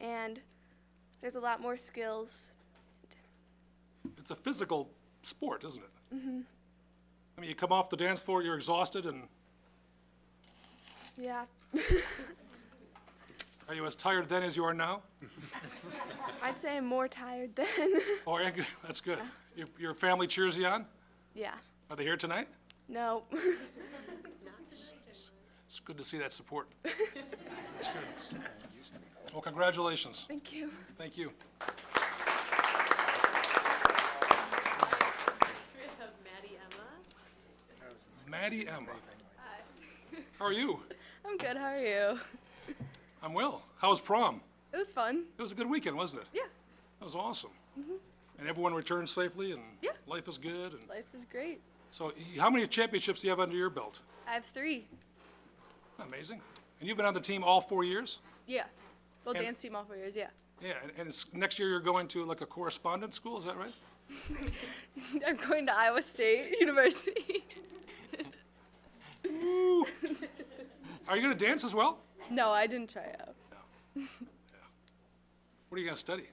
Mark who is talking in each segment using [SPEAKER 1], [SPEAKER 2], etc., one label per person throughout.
[SPEAKER 1] and there's a lot more skills.
[SPEAKER 2] It's a physical sport, isn't it? Mm-hmm. I mean, you come off the dance floor, you're exhausted, and
[SPEAKER 1] Yeah,
[SPEAKER 2] are you as tired then as you are now?
[SPEAKER 1] I'd say I'm more tired than.
[SPEAKER 2] Or, that's good. Your, your family cheers you on?
[SPEAKER 1] yeah,
[SPEAKER 2] Are they here tonight?
[SPEAKER 1] no.
[SPEAKER 2] It's good to see that support. It's good. Well, congratulations.
[SPEAKER 1] Thank you.
[SPEAKER 2] Thank you.
[SPEAKER 3] We have Maddie Emma.
[SPEAKER 2] Maddie Emma. How are you?
[SPEAKER 1] I'm good. How are you?
[SPEAKER 2] I'm well. How was prom?
[SPEAKER 1] It was fun.
[SPEAKER 2] It was a good weekend, wasn't it?
[SPEAKER 1] Yeah, Mm-hmm.
[SPEAKER 2] That was awesome. And everyone returned safely, and
[SPEAKER 1] Yeah.
[SPEAKER 2] life is good. And
[SPEAKER 1] life is great.
[SPEAKER 2] so, y- how many championships do you have under your belt?
[SPEAKER 1] I have three.
[SPEAKER 2] Amazing. And you've been on the team all four years?
[SPEAKER 1] Yeah. Well,
[SPEAKER 2] And-
[SPEAKER 1] dance team all four years. Yeah.
[SPEAKER 2] Yeah, and, and it's, next year you're going to like a correspondence school, is that right?
[SPEAKER 1] I'm going to Iowa State University.
[SPEAKER 2] Are you going to dance as well?
[SPEAKER 1] no, I didn't try out.
[SPEAKER 2] What are you going to study?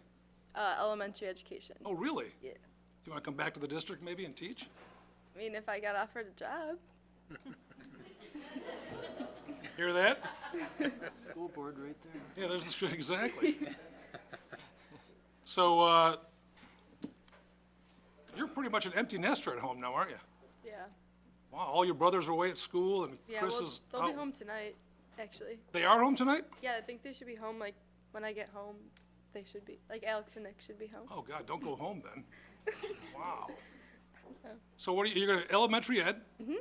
[SPEAKER 1] Uh, elementary education.
[SPEAKER 2] Oh, really?
[SPEAKER 1] Yeah.
[SPEAKER 2] Do you want to come back to the district maybe and teach?
[SPEAKER 1] I mean, if I got offered a job.
[SPEAKER 2] Hear that?
[SPEAKER 4] School board right there.
[SPEAKER 2] Yeah, there's the screen, exactly. So, uh, you're pretty much an empty nester at home now, aren't you?
[SPEAKER 1] Yeah.
[SPEAKER 2] Wow, all your brothers are away at school and
[SPEAKER 1] Yeah.
[SPEAKER 2] Chris
[SPEAKER 1] well,
[SPEAKER 2] is
[SPEAKER 1] they'll be
[SPEAKER 2] out-
[SPEAKER 1] home tonight, actually.
[SPEAKER 2] They are home tonight?
[SPEAKER 1] Yeah, I think they should be home. Like when I get home, they should be. Like Alex and Nick should be home.
[SPEAKER 2] Oh, God, don't go home then. Wow. So what are you, you're going to elementary ed? Mm-hmm. And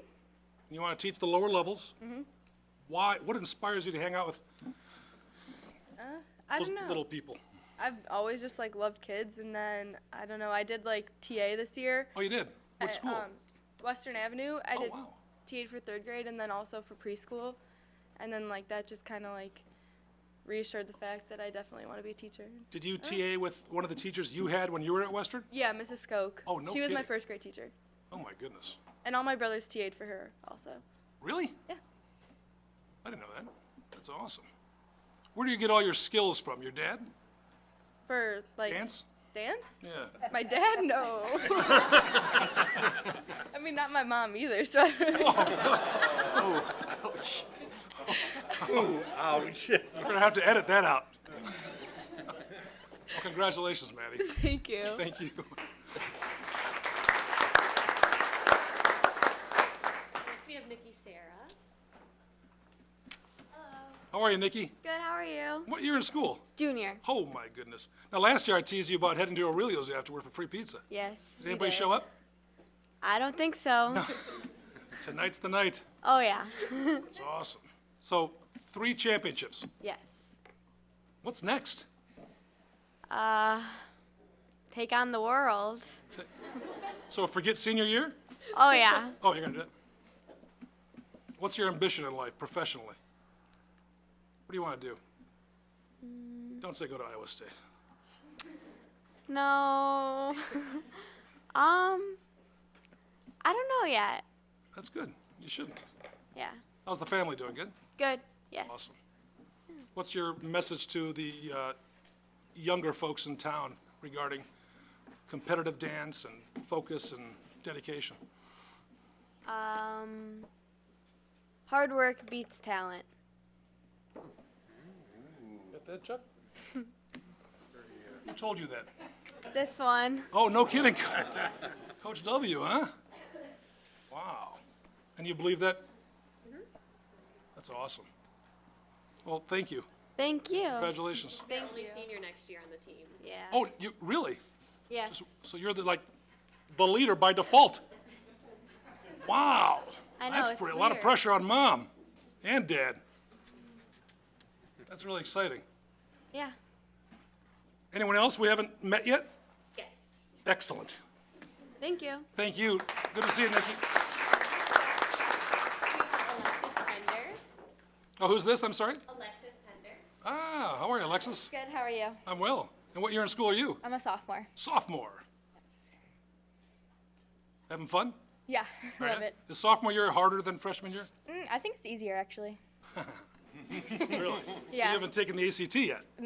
[SPEAKER 2] you want to teach the lower levels? Mm-hmm. Why, what inspires you to hang out with
[SPEAKER 1] I
[SPEAKER 2] those
[SPEAKER 1] don't know.
[SPEAKER 2] little people?
[SPEAKER 1] I've always just like loved kids, and then I don't know. I did like TA this year.
[SPEAKER 2] Oh, you did? What
[SPEAKER 1] at,
[SPEAKER 2] school?
[SPEAKER 1] um, Western Avenue. I
[SPEAKER 2] Oh,
[SPEAKER 1] did
[SPEAKER 2] wow.
[SPEAKER 1] TA for third grade, and then also for preschool, and then like that just kind of like reassured the fact that I definitely want to be a teacher.
[SPEAKER 2] Did you TA with one of the teachers you had when you were at Western?
[SPEAKER 1] Yeah, Mrs. Skoke.
[SPEAKER 2] Oh, no
[SPEAKER 1] She was my
[SPEAKER 2] kidding.
[SPEAKER 1] first grade teacher,
[SPEAKER 2] Oh, my goodness.
[SPEAKER 1] and all my brothers TA'd for her also.
[SPEAKER 2] Really?
[SPEAKER 1] Yeah.
[SPEAKER 2] I didn't know that. That's awesome. Where do you get all your skills from? Your dad?
[SPEAKER 1] For like
[SPEAKER 2] Dance?
[SPEAKER 1] Dance?
[SPEAKER 2] Yeah.
[SPEAKER 1] My dad, no. I mean, not my mom either. So I don't-
[SPEAKER 2] Oh.
[SPEAKER 4] Ouch.
[SPEAKER 2] We're gonna have to edit that out. Well, congratulations, Maddie.
[SPEAKER 1] thank you.
[SPEAKER 2] Thank you.
[SPEAKER 3] Next, we have Nikki Sarah.
[SPEAKER 2] How are you, Nikki?
[SPEAKER 5] Good, how are you?
[SPEAKER 2] What year in school?
[SPEAKER 5] Junior.
[SPEAKER 2] Oh, my goodness. Now, last year I teased you about heading to Aurelio's afterward for free pizza.
[SPEAKER 5] Yes.
[SPEAKER 2] Did anybody show up?
[SPEAKER 5] I don't think so.
[SPEAKER 2] Tonight's the night.
[SPEAKER 5] Oh, yeah.
[SPEAKER 2] It's awesome. So, three championships.
[SPEAKER 5] Yes.
[SPEAKER 2] What's next?
[SPEAKER 5] Take on the world.
[SPEAKER 2] So, forget senior year?
[SPEAKER 5] Oh, yeah.
[SPEAKER 2] Oh, you're gonna do it? What's your ambition in life professionally? What do you want to do? Don't say go to Iowa State.
[SPEAKER 5] No. um, I don't know yet.
[SPEAKER 2] That's good. You shouldn't.
[SPEAKER 5] Yeah.
[SPEAKER 2] How's the family doing? Good?
[SPEAKER 5] Good. Yes.
[SPEAKER 2] Awesome. What's your message to the uh, younger folks in town regarding competitive dance and focus and dedication?
[SPEAKER 5] Um, hard work beats talent.
[SPEAKER 2] Got that, Chuck? Who told you that?
[SPEAKER 5] This one.
[SPEAKER 2] Oh, no kidding. Coach W, huh? Wow. And you believe that? That's awesome. Well, thank you.
[SPEAKER 5] Thank you.
[SPEAKER 2] Congratulations.
[SPEAKER 5] Thank
[SPEAKER 3] Only
[SPEAKER 5] you.
[SPEAKER 3] senior next year on the team.
[SPEAKER 5] Yeah.
[SPEAKER 2] Oh, you, really?
[SPEAKER 5] yes.
[SPEAKER 2] So you're the, like, the leader by default? Wow.
[SPEAKER 5] I know,
[SPEAKER 2] That's
[SPEAKER 5] it's
[SPEAKER 2] pretty, a lot of
[SPEAKER 5] weird.
[SPEAKER 2] pressure on mom and dad. That's really exciting.
[SPEAKER 5] Yeah.
[SPEAKER 2] Anyone else we haven't met yet?
[SPEAKER 3] Yes.
[SPEAKER 2] Excellent.
[SPEAKER 5] Thank you.
[SPEAKER 2] Thank you. Good to see you, Nikki.
[SPEAKER 3] We have Alexis Pender.
[SPEAKER 2] Oh, who's this? I'm sorry?
[SPEAKER 3] Alexis Pender.
[SPEAKER 2] Ah, how are you, Alexis?
[SPEAKER 6] Good, how are you?
[SPEAKER 2] I'm well. And what year in school are you?
[SPEAKER 6] I'm a sophomore.
[SPEAKER 2] Sophomore. Having fun?
[SPEAKER 6] Yeah, love
[SPEAKER 2] Right?
[SPEAKER 6] it.
[SPEAKER 2] Is sophomore year harder than freshman year?
[SPEAKER 6] Mm, I think it's easier actually.
[SPEAKER 2] Really? So you
[SPEAKER 6] Yeah.
[SPEAKER 2] haven't taken the ACT yet?